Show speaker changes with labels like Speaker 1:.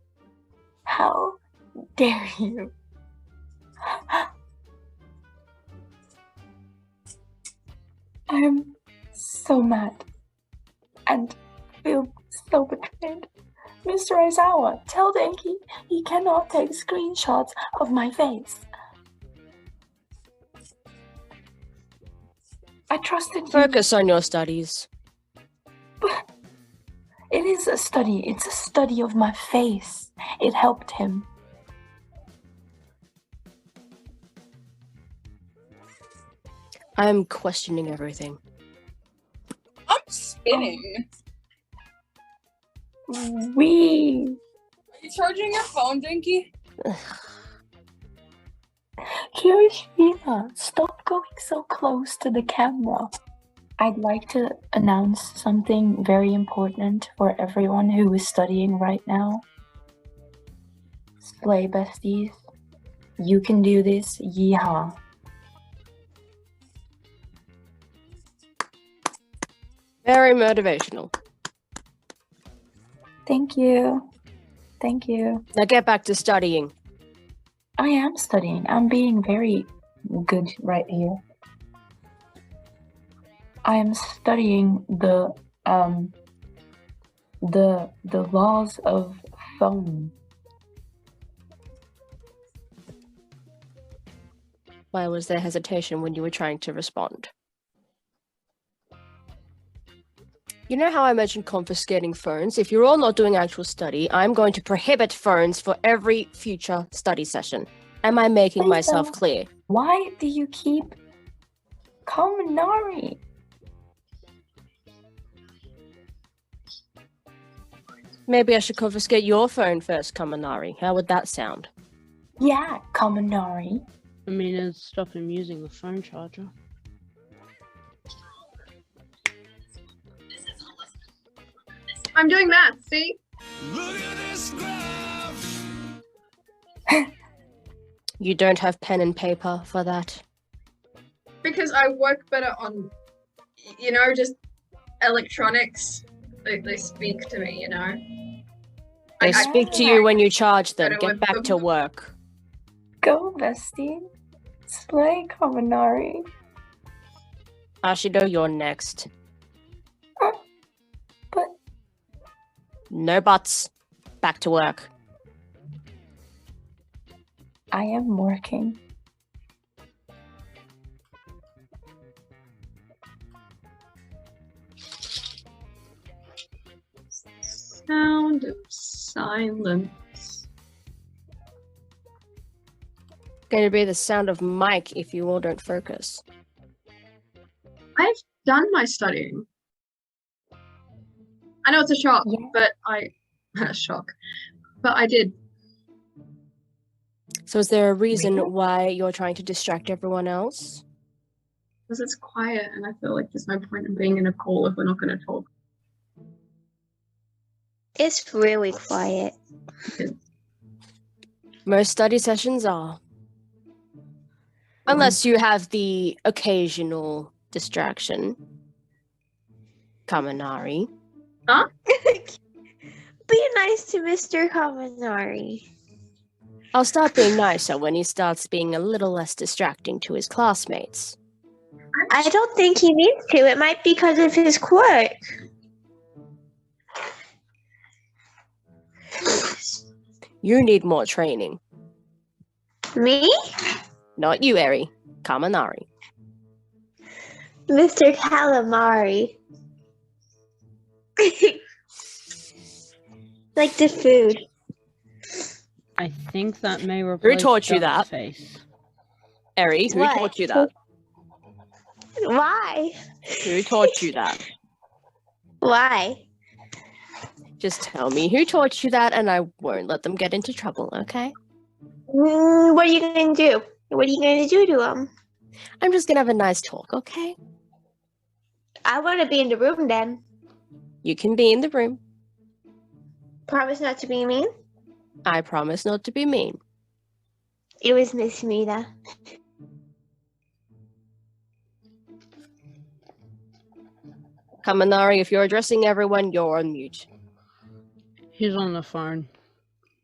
Speaker 1: How dare you? I'm so mad and feel so betrayed. Mr. Aizawa, tell Denki he cannot take screenshots of my face. I trusted you.
Speaker 2: Focus on your studies.
Speaker 1: It is a study. It's a study of my face. It helped him.
Speaker 2: I'm questioning everything.
Speaker 3: I'm
Speaker 4: Oh.
Speaker 3: spinning.
Speaker 1: We
Speaker 3: Are you charging your phone, Dinky?
Speaker 1: Kirishima, stop going so close to the camera. I'd like to announce something very important for everyone who is studying right now. Slay besties, you can do this, yeehaw.
Speaker 2: Very motivational.
Speaker 1: Thank you. Thank you.
Speaker 2: Now get back to studying.
Speaker 1: I am studying. I'm being very good right here. I am studying the um the the laws of phone.
Speaker 2: Why was there hesitation when you were trying to respond? You know how I mentioned confiscating phones? If you're all not doing actual study, I'm going to prohibit phones for every future study session. Am I making
Speaker 1: Please
Speaker 2: myself
Speaker 1: don't.
Speaker 2: clear?
Speaker 1: Why do you keep Kaminari?
Speaker 2: Maybe I should confiscate your phone first, Kaminari. How would that sound?
Speaker 1: Yeah, Kaminari.
Speaker 5: I mean, it'd stop him using the phone charger.
Speaker 4: I'm doing that. See?
Speaker 6: Look at this graph.
Speaker 2: You don't have pen and paper for that.
Speaker 4: Because I work better on, y- you know, just electronics. They, they speak to me, you know?
Speaker 2: They
Speaker 4: I- I-
Speaker 2: speak to you when you charge them.
Speaker 4: Better
Speaker 2: Get
Speaker 4: with
Speaker 2: back
Speaker 4: them.
Speaker 2: to work.
Speaker 1: Go, bestie. Slay Kaminari.
Speaker 2: Ashido, you're next.
Speaker 1: Uh, but-
Speaker 2: No buts. Back to work.
Speaker 1: I am working.
Speaker 4: Sound of silence.
Speaker 2: Going to be the sound of Mike if you all don't focus.
Speaker 4: I've done my studying. I know it's a shock,
Speaker 1: Yeah.
Speaker 4: but I. shock. But I did.
Speaker 2: So is there a reason why you're trying to distract everyone else?
Speaker 4: Because it's quiet and I feel like there's no point in being in a call if we're not going to talk.
Speaker 7: It's really quiet.
Speaker 2: Most study sessions are. Unless you have the occasional distraction. Kaminari.
Speaker 7: Be nice to Mr. Kaminari.
Speaker 2: I'll start being nicer when he starts being a little less distracting to his classmates.
Speaker 7: I don't think he needs to. It might be because of his quirk.
Speaker 2: You need more training.
Speaker 7: Me?
Speaker 2: Not you, Eri. Kaminari.
Speaker 7: Mr. Calamari. like the food.
Speaker 5: I think that may replace
Speaker 2: Who taught you
Speaker 5: Duck's Face.
Speaker 2: Eri, who
Speaker 7: What?
Speaker 2: taught you that?
Speaker 7: Why?
Speaker 2: Who taught you that?
Speaker 7: Why?
Speaker 2: Just tell me who taught you that and I won't let them get into trouble, okay?
Speaker 7: Mm, what are you going to do? What are you going to do to him?
Speaker 2: I'm just gonna have a nice talk, okay?
Speaker 7: I want to be in the room then.
Speaker 2: You can be in the room.
Speaker 7: Promise not to be mean.
Speaker 2: I promise not to be mean.
Speaker 7: It was Miss Mina.
Speaker 2: Kaminari, if you're addressing everyone, you're on mute.
Speaker 5: He's on the phone.